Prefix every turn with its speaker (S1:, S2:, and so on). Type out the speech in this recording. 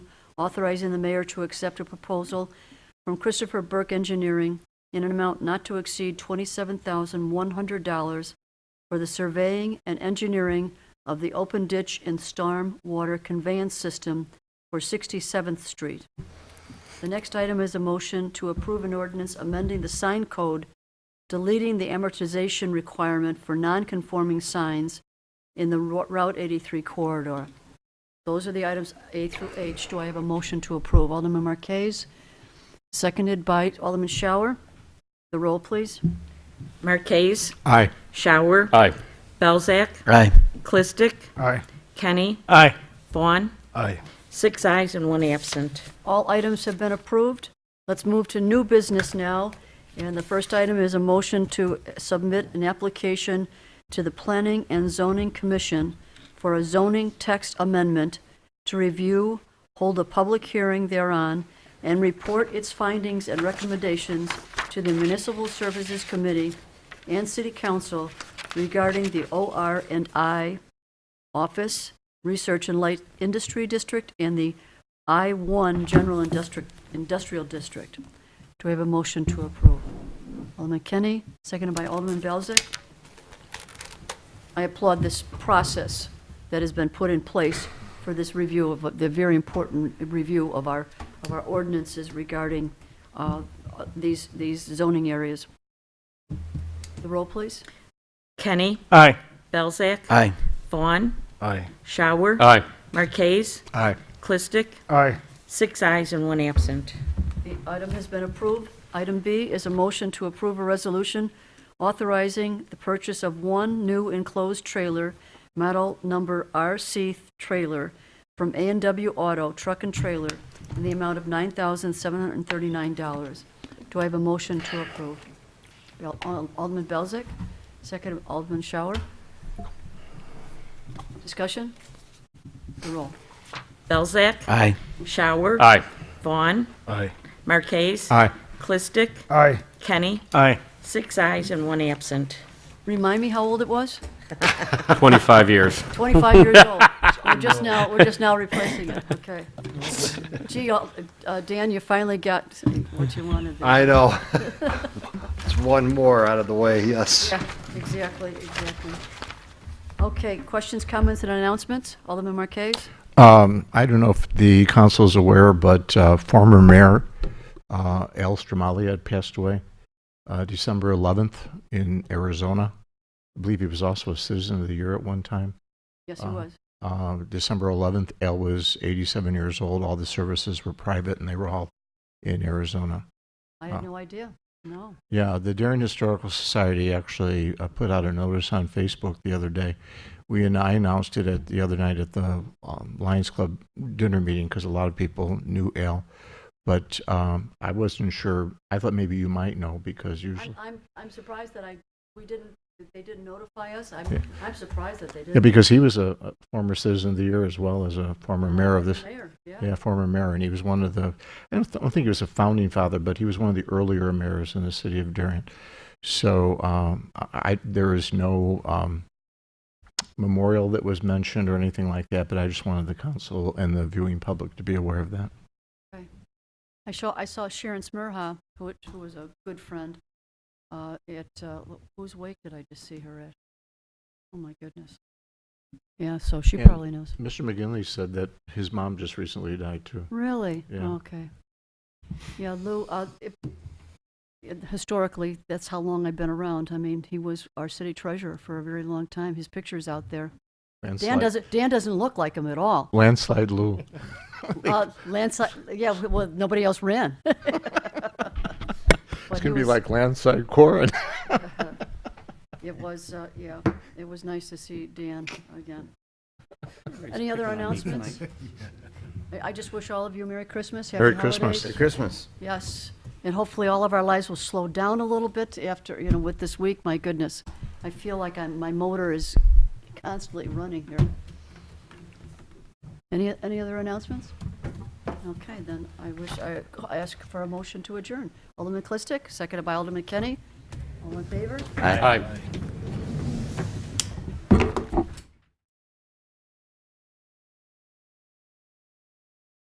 S1: authorizing the mayor to accept a proposal from Christopher Burke Engineering in an amount not to exceed $27,100 for the surveying and engineering of the open ditch and storm water conveyance system for 67th Street. The next item is a motion to approve an ordinance amending the sign code, deleting the amortization requirement for non-conforming signs in the Ro- Route 83 corridor. Those are the items A through H. Do I have a motion to approve? Alderman Marquez, seconded by Alderman Shower. The roll, please.
S2: Marquez,
S3: Aye.
S2: Shower,
S4: Aye.
S2: Belzak,
S4: Aye.
S2: Clistic,
S3: Aye.
S2: Kenny,
S4: Aye.
S2: Vaughn,
S3: Aye.
S2: six eyes and one absent.
S1: All items have been approved. Let's move to new business now. And the first item is a motion to submit an application to the Planning and Zoning Commission for a zoning text amendment to review, hold a public hearing thereon, and report its findings and recommendations to the Municipal Services Committee and City Council regarding the OR and I Office, Research and Light Industry District, and the I-1 General Industri- Industrial District. Do we have a motion to approve? Alderman Kenny, seconded by Alderman Belzak. I applaud this process that has been put in place for this review of, the very important review of our, of our ordinances regarding uh, these, these zoning areas. The roll, please.
S2: Kenny,
S4: Aye.
S2: Belzak,
S4: Aye.
S2: Vaughn,
S3: Aye.
S2: Shower,
S4: Aye.
S2: Marquez,
S3: Aye.
S2: Clistic,
S3: Aye.
S2: six eyes and one absent.
S1: The item has been approved. Item B is a motion to approve a resolution authorizing the purchase of one new enclosed trailer, model number RC trailer, from a and W Auto Truck and Trailer in the amount of $9,739. Do I have a motion to approve? Al- Al- Alderman Belzak, second Alderman Shower. Discussion? The roll.
S2: Belzak,
S4: Aye.
S2: Shower,
S4: Aye.
S2: Vaughn,
S3: Aye.
S2: Marquez,
S3: Aye.
S2: Clistic,
S3: Aye.
S2: Kenny,
S4: Aye.
S2: six eyes and one absent.
S1: Remind me how old it was?
S4: 25 years.
S1: 25 years old. We're just now, we're just now replacing it, okay. Gee, uh, uh, Dan, you finally got what you wanted there.
S5: I know. It's one more out of the way, yes.
S1: Yeah, Exactly, exactly. Okay, questions, comments, and announcements? Alderman Marquez?
S3: Um, I don't know if the council is aware, but uh, former mayor uh, Al Stromali had passed away uh, December 11th in Arizona. I believe he was also a Citizen of the Year at one time.
S1: Yes, he
S3: Uh,
S1: was.
S3: Uh, December 11th, Al was 87 years old. All the services were private, and they were all in Arizona.
S1: I
S3: uh,
S1: had no idea, no.
S3: Yeah, the Darien Historical Society actually uh, put out a notice on Facebook the other day. We and I announced it at the other night at the um, Lions Club dinner meeting because a lot of people knew Al, but um, I wasn't sure. I thought maybe you might know because
S1: I'm,
S3: usually,
S1: I'm, I'm surprised that I, we didn't, that they didn't notify us. I'm,
S3: Yeah.
S1: I'm surprised that they
S3: yeah,
S1: didn't.
S3: because he was a, a former Citizen of the Year as well as a former mayor of this.
S1: Mayor, yeah.
S3: Yeah, former mayor, and he was one of the. I don't, th- I don't think he was a founding father, but he was one of the earlier mayors in the city of Darien. So um, I, I- there is no um, memorial that was mentioned or anything like that. But I just wanted the council and the viewing public to be aware of that.
S1: I saw, I saw Sharon Smirha, who, who was a good friend, uh, at, uh, whose wake did I just see her at? Oh, my goodness. Yeah, so she
S3: And-
S1: probably knows.
S3: Mr. McGinley said that his mom just recently died too.
S1: Really?
S3: Yeah.
S1: Okay. Yeah, Lou, uh, if- it- historically, that's how long I've been around. I mean, he was our city treasurer for a very long time. His picture's out there. Dan
S3: Landslide,
S1: doesn't, Dan doesn't look like him at all.
S3: landslide Lou.
S1: Uh, landslide, yeah, well, nobody else ran.
S3: It's
S1: he
S3: gonna be
S1: was- Uh-huh.
S3: like landslide Corin.
S1: It was, uh, yeah, it was nice to see Dan again. Any other announcements? I I just wish all of you Merry Christmas, Happy
S3: Merry Christmas.
S1: Holidays.
S5: Christmas.
S1: Yes, and hopefully all of our lives will slow down a little bit after, you know, with this week, my goodness. I feel like I'm, my motor is constantly running here. Any, any other announcements? Okay, then I wish, I I ask for a motion to adjourn. Alderman Clistic, seconded by Alderman Kenny. All in favor?
S4: Aye.